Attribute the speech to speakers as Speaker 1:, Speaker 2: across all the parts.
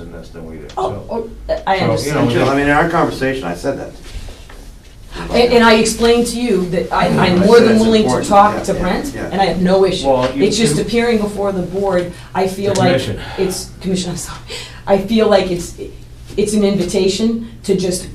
Speaker 1: in this than we do.
Speaker 2: Oh,
Speaker 1: So-
Speaker 2: oh, I
Speaker 1: So, you know,
Speaker 2: understand.
Speaker 1: just-
Speaker 3: I mean, in our conversation, I said that.
Speaker 2: And and I explained to you that I, I'm
Speaker 3: I
Speaker 2: more
Speaker 3: said
Speaker 2: than
Speaker 3: it's
Speaker 2: willing to
Speaker 3: important,
Speaker 2: talk
Speaker 3: yeah,
Speaker 2: to
Speaker 3: yeah,
Speaker 2: Brent,
Speaker 3: yeah.
Speaker 2: and I have no issue.
Speaker 1: Well, you-
Speaker 2: It's just
Speaker 1: you-
Speaker 2: appearing before the board, I feel
Speaker 1: The
Speaker 2: like
Speaker 1: commission.
Speaker 2: it's, commission, I'm sorry, I feel like it's, it's an invitation to just.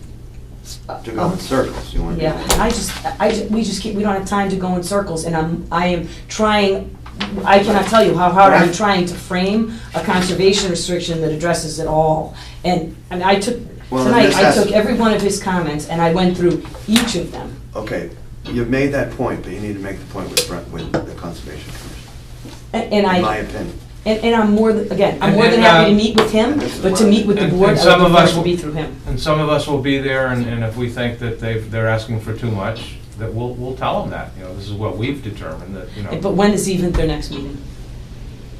Speaker 3: To go in circles, you want to.
Speaker 2: Yeah, I just, I, ju- we just keep, we don't have time to go in circles, and I'm, I am trying, I cannot tell you how hard I'm
Speaker 3: Right.
Speaker 2: trying to frame a conservation restriction that addresses it all. And, and I took,
Speaker 3: Well, then
Speaker 2: tonight,
Speaker 3: this
Speaker 2: I
Speaker 3: has-
Speaker 2: took every one of his comments, and I went through each of them.
Speaker 3: Okay, you've made that point, but you need to make the point with Brent, with the Conservation Commission,
Speaker 2: A- And
Speaker 3: in
Speaker 2: I,
Speaker 3: my opinion.
Speaker 2: and, and I'm more, than again, I'm
Speaker 1: And-
Speaker 2: more than
Speaker 1: and,
Speaker 2: happy to
Speaker 1: uh,
Speaker 2: meet with him,
Speaker 3: and this is
Speaker 2: but to
Speaker 3: where-
Speaker 2: meet with the
Speaker 1: and-
Speaker 2: board,
Speaker 1: and
Speaker 2: I
Speaker 1: some
Speaker 2: would
Speaker 1: of
Speaker 2: prefer
Speaker 1: us
Speaker 2: it to
Speaker 1: will-
Speaker 2: be through him.
Speaker 1: And some of us will be there, and, and if we think that they've, they're asking for too much, that we'll, we'll tell them that, you know, this is what we've determined, that,
Speaker 3: Oh.
Speaker 1: you
Speaker 2: But
Speaker 1: know.
Speaker 2: when is even their next meeting?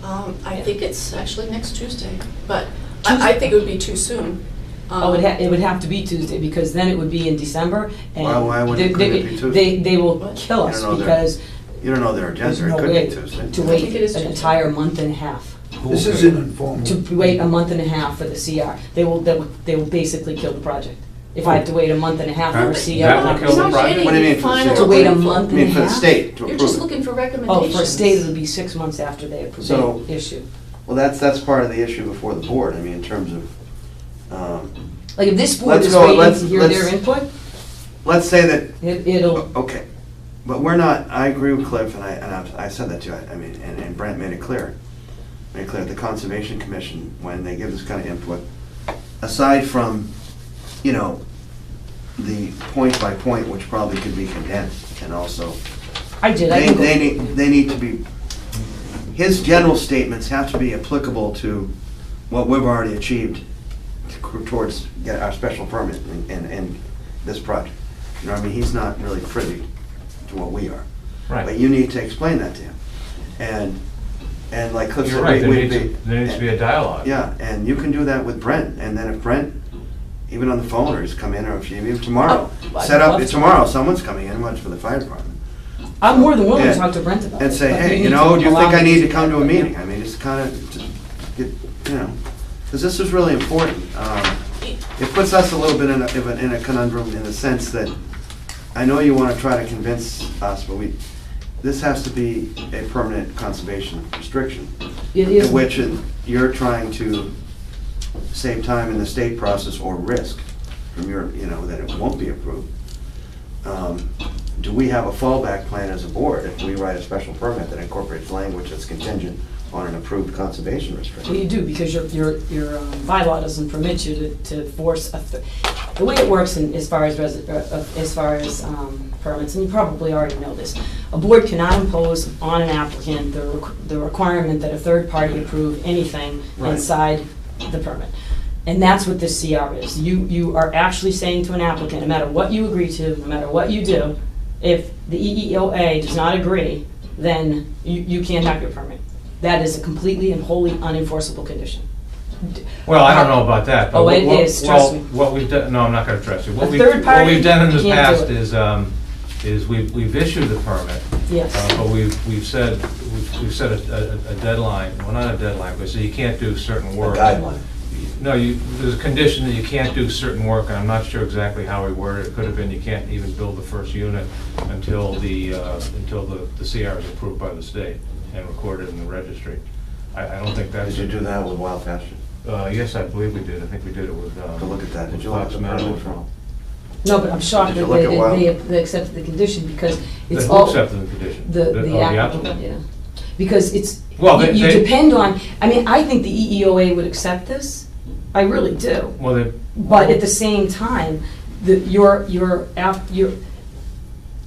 Speaker 4: Um, I think it's actually next Tuesday, but I, I think it would be too soon. Um,
Speaker 2: Oh, it ha, it would have to be Tuesday, because then it would be in December, and.
Speaker 3: Why- why would it-
Speaker 2: they-
Speaker 3: couldn't it
Speaker 2: they-
Speaker 3: be Tuesday?
Speaker 2: They, they will kill
Speaker 3: I
Speaker 2: us,
Speaker 3: don't know, they're-
Speaker 2: because
Speaker 3: You don't know their
Speaker 2: there's
Speaker 3: agenda,
Speaker 2: no
Speaker 3: it
Speaker 2: way
Speaker 3: could be
Speaker 2: to
Speaker 3: Tuesday.
Speaker 4: think it is
Speaker 2: wait an
Speaker 4: Tuesday.
Speaker 2: entire month and a half,
Speaker 5: This is an informal.
Speaker 2: to
Speaker 3: Mm-hmm.
Speaker 2: wait a month and a half for the CR. They will, they will, they will basically kill the project, if I have to wait a month and a half for a
Speaker 4: But
Speaker 2: CR.
Speaker 4: you're
Speaker 1: That
Speaker 2: I'm
Speaker 1: will
Speaker 2: not
Speaker 4: not-
Speaker 1: kill
Speaker 4: you're
Speaker 1: the
Speaker 2: gonna-
Speaker 4: not
Speaker 1: project.
Speaker 4: getting
Speaker 3: What do you mean
Speaker 4: the
Speaker 3: for the
Speaker 4: final
Speaker 3: state?
Speaker 2: To wait a month and
Speaker 3: I mean,
Speaker 2: a
Speaker 3: for the
Speaker 2: half?
Speaker 3: state to
Speaker 4: You're
Speaker 3: approve
Speaker 4: just
Speaker 3: it.
Speaker 4: looking for
Speaker 2: Oh,
Speaker 4: recommendations.
Speaker 2: for a state, it'll be six months after they approve
Speaker 3: So-
Speaker 2: the issue.
Speaker 3: Well, that's, that's part of the issue before the board, I mean, in terms of, um,
Speaker 2: Like, if this board
Speaker 3: Let's
Speaker 2: is
Speaker 3: go-
Speaker 2: waiting
Speaker 3: let's-
Speaker 2: to hear their
Speaker 3: let's-
Speaker 2: input,
Speaker 3: let's say that,
Speaker 2: it- it'll,
Speaker 3: Oh, okay, but we're not, I agree with Cliff, and I, and I've- I said that to you, I- I mean, and and Brent made it clear, made it clear, the Conservation Commission, when they give this kind of input, aside from, you know, the point by point, which probably could be condensed, and also,
Speaker 2: I did, I
Speaker 3: they,
Speaker 2: can go.
Speaker 3: they need, they need to be, his general statements have to be applicable to what we've already achieved towards get our special permit and, and- and this project. You know, what I mean, he's not really privy to what we are. But
Speaker 1: Right.
Speaker 3: you need to explain that to him. And, and like Cliff
Speaker 1: You're
Speaker 3: said,
Speaker 1: right,
Speaker 3: we-
Speaker 1: there
Speaker 3: we'd
Speaker 1: needs,
Speaker 3: be.
Speaker 1: to- there needs to be a dialogue.
Speaker 3: Yeah, and you can do that with Brent, and then if Brent, even on the phone, or he's come in, or if you, even tomorrow,
Speaker 2: Oh, I'd
Speaker 3: set
Speaker 2: love
Speaker 3: up,
Speaker 2: to.
Speaker 3: tomorrow, someone's coming in, much for the fire department,
Speaker 2: I'm more than willing to
Speaker 3: Yeah.
Speaker 2: talk to Brent about it.
Speaker 3: and say,
Speaker 2: but
Speaker 3: hey,
Speaker 2: need
Speaker 3: you know,
Speaker 2: to
Speaker 3: do you
Speaker 2: allow
Speaker 3: think I
Speaker 2: me
Speaker 3: need to come to a
Speaker 2: Yeah.
Speaker 3: meeting? I mean, it's kind of, to get, you know, because this is really important. Um, It puts us a little bit in a, of a- in a conundrum in the sense that, I know you want to try to convince us, but we, this has to be a permanent conservation restriction.
Speaker 2: It is.
Speaker 3: In which it- you're trying to save time in the state process or risk from your, you know, that it won't be approved. Um, Do we have a fallback plan as a board if we write a special permit that incorporates language that's contingent on an approved conservation
Speaker 2: Well, you
Speaker 3: restriction?
Speaker 2: do, because your, your, your um, bylaw doesn't permit you to, to force a, th- the way it works in, as far as resi, uh, uh, as far as, um, permits, and you probably already know this, a board cannot impose on an applicant the, requ- the requirement that a third party approve anything
Speaker 3: Right.
Speaker 2: inside the permit. And that's what this CR is. You, you are actually saying to an applicant, no matter what you agree to, no matter what you do, if the E EEOA does not agree, then you, you can't have your permit. That is a completely and wholly unenforceable condition.
Speaker 1: Well, I don't know about that, but.
Speaker 2: Oh, it
Speaker 1: what-
Speaker 2: is,
Speaker 1: well,
Speaker 2: trust me.
Speaker 1: What we've done, no, I'm not gonna trust you. What
Speaker 2: A
Speaker 1: we've,
Speaker 2: third
Speaker 1: what
Speaker 2: party
Speaker 1: we've done in the
Speaker 2: can't do
Speaker 1: past
Speaker 2: it.
Speaker 1: is, um, is we've, we've issued the permit,
Speaker 2: Yes.
Speaker 1: Uh, But we've, we've said, we've we've set a- a a deadline, well, not a deadline, but so you can't do certain work.
Speaker 3: guideline.
Speaker 1: No, you, there's a condition that you can't do certain work, and I'm not sure exactly how we worded it. It could have been you can't even build the first unit until the, uh, until the the CR is approved by the state and recorded in the registry. I, I don't think that's.
Speaker 3: Did you do that with Wild Pasture?
Speaker 1: Uh, yes, I believe we did. I think we did it with. um,
Speaker 3: To look at that, did you look at
Speaker 1: Fox
Speaker 3: the
Speaker 1: Meadow.
Speaker 3: permit from?
Speaker 2: No, but I'm shocked
Speaker 3: Did you
Speaker 2: that
Speaker 3: look
Speaker 2: they,
Speaker 3: at Wild?
Speaker 2: they, they accepted the condition because
Speaker 1: The
Speaker 2: it's
Speaker 1: who
Speaker 2: all.
Speaker 1: accepted the condition?
Speaker 2: The,
Speaker 1: oh,
Speaker 2: the applicant, yeah. Because it's,
Speaker 1: Well, they-
Speaker 2: you you
Speaker 1: they-
Speaker 2: depend on, I mean, I think the E EEOA would accept this. I really do.
Speaker 1: Well, they.
Speaker 2: But at the same time, the, your, your, app- your,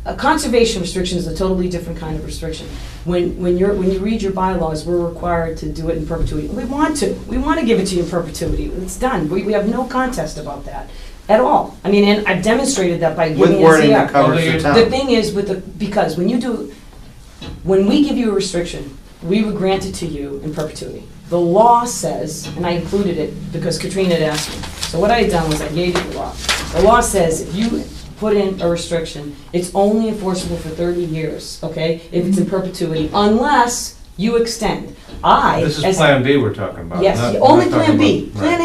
Speaker 2: a conservation restriction is a totally different kind of restriction. When, when you're, when you read your bylaws, we're required to do it in perpetuity. We want to, we want to give it to you in perpetuity. It's done. We, we have no contest about that at all. I mean, and I've demonstrated that by
Speaker 3: With
Speaker 2: giving a
Speaker 3: wording that
Speaker 2: CR.
Speaker 3: covers
Speaker 1: Although
Speaker 3: the
Speaker 1: you-
Speaker 3: town.
Speaker 2: The thing is with the, because when you do, when we give you a restriction, we would grant it to you in perpetuity. The law says, and I included it because Katrina had asked me, so what I had done was I gave you the law. The law says if you put in a restriction, it's only enforceable for thirty years, okay? If it's in perpetuity, unless you extend. I,
Speaker 1: This is
Speaker 2: as-
Speaker 1: Plan B we're talking about.
Speaker 2: Yes,
Speaker 1: not-
Speaker 2: only
Speaker 1: not talking
Speaker 2: Plan B.
Speaker 1: about- right.
Speaker 2: Plan A